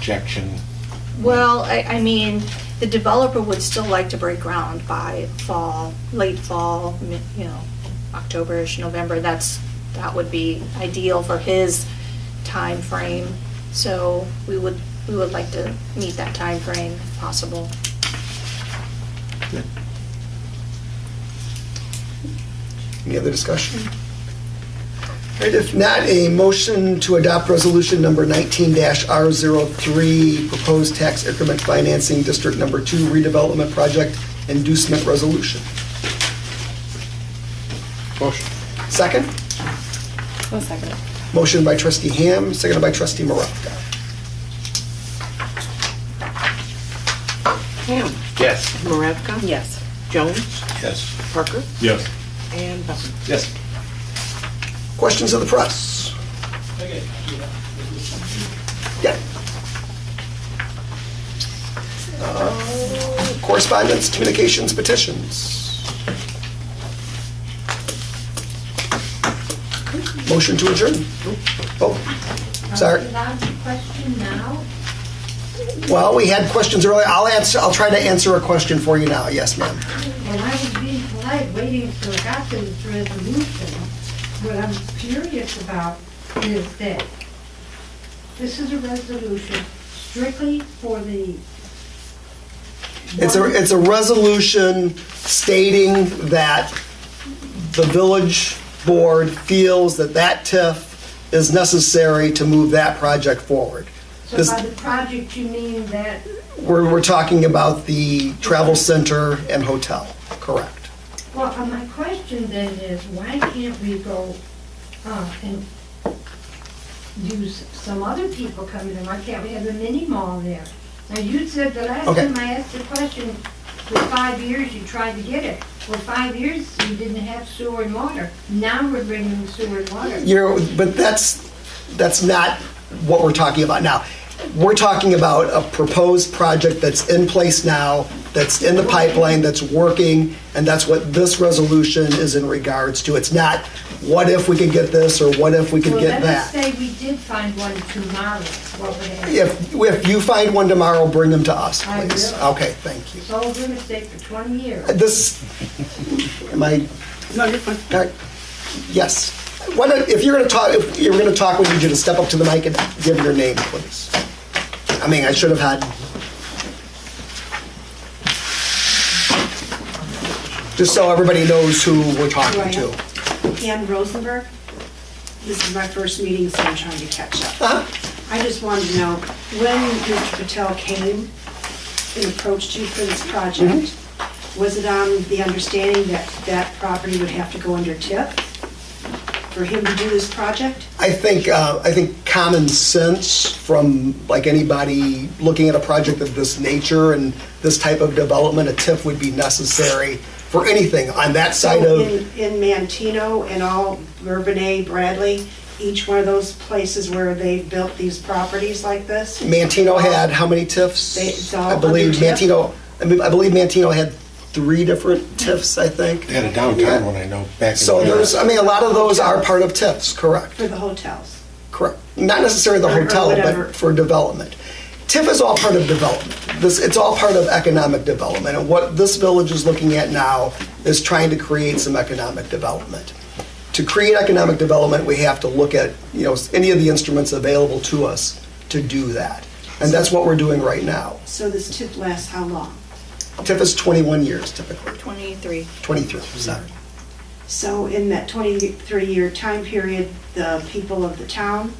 projection? Well, I, I mean, the developer would still like to break ground by fall, late fall, mi- you know, Octoberish, November. That's, that would be ideal for his time frame. So we would, we would like to meet that time frame if possible. Any other discussion? All right, if not, a motion to adopt resolution number 19-R03, proposed tax increment financing district number two redevelopment project inducement resolution. Motion. Second, One second. motion by trustee Ham, seconded by trustee Maravka. Ham. Yes. Maravka. Yes. Jones. Yes. Parker. Yes. And Buckman. Yes. Questions of the press? Yeah. Uh, Correspondence, communications, petitions. Motion to adjourn. Oh, sorry. Are we allowed to question now? Well, we had questions earlier. I'll answer, I'll try to answer a question for you now. Yes, ma'am. Well, I was being polite, waiting till I got to this resolution. What I'm curious about is that this is a resolution strictly for the. It's a, it's a resolution stating that the village board feels that that TIF is necessary to move that project forward. So this- by the project, you mean that, We're, we're talking about the travel center and hotel, correct? well, uh, my question then is, why can't we go, uh, and use some other people coming in? Why can't we have a mini mall there? Now, you said the last Okay. time I asked the question, for five years you tried to get it. For five years, you didn't have sewer and water. Now we're bringing sewer and water. You're, but that's, that's not what we're talking about now. We're talking about a proposed project that's in place now, that's in the pipeline, that's working, and that's what this resolution is in regards to. It's not, what if we could get this, or what if we could Well, get let's that? say we did find one tomorrow, what would happen? If, if you find one tomorrow, bring them to us, I please. will. Okay, thank you. Sold real estate for 20 years. This, am I No, you're fine. Uh, Yes. Why don't, if you're going to talk, if you're going to talk, we need you to step up to the mic and give your name, please. I mean, I should have had. Just so everybody knows who we're talking to. Ann Rosenberg. This is my first meeting, so I'm trying to catch Uh-huh. up. I just wanted to know, when Mr. Patel came and approached you for this project, Mm-hmm. was it on the understanding that that property would have to go under TIP for him to do this project? I think, uh, I think common sense from like anybody looking at a project of this nature and this type of development, a TIF would be necessary for anything on that side So of. in- In Mantino and all, Bourbonnais, Bradley, each one of those places where they built these properties like this? Mantino had how many TIFs? They- it's all I believe under TIF? Mantino. I mean, I believe Mantino had three different TIFs. I think. They had a downtown one, I know, back in. So the- there's. I mean, a lot of those are part of TIFs. Correct. For the hotels? Correct. Not necessarily the Or- or hotel, whatever. but for development. TIF is all part of development. This, it's all part of economic development. And what this village is looking at now is trying to create some economic development. To create economic development, we have to look at, you know, any of the instruments available to us to do that. And that's what we're doing right now. So this TIP lasts how long? TIF is 21 years typically, 23. 23, sorry. So in that 23-year time period, the people of the town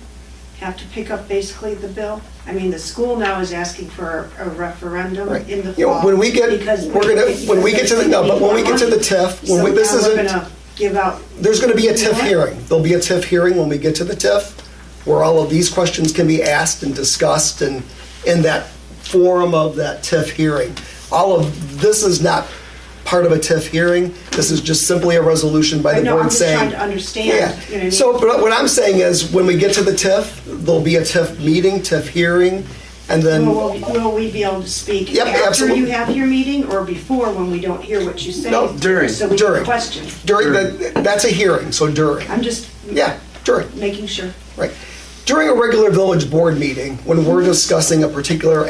have to pick up basically the bill? I mean, the school now is asking for a referendum Right. in the You know, fall. when we get- because we're gonna- when we get to the- no, but when we get to the TIF, when we- this So now isn't- we're gonna give out, There's going to be a TIF What? hearing. There'll be a TIF hearing when we get to the TIF, where all of these questions can be asked and discussed and in that forum of that TIF hearing. All of, this is not part of a TIF hearing. This is just simply a resolution by I the know, I'm board just saying. trying to understand, you know what I Yeah. mean? So but what I'm saying is, when we get to the TIF, there'll be a TIF meeting, TIF hearing, and then. will will we be able to speak Yep, after absolutely. you have your meeting or before when we don't hear what you say? No, during, So we during. can question. During, the- that's a hearing, so during. I'm just Yeah, during. making sure. Right. during a regular village board meeting, when we're discussing a particular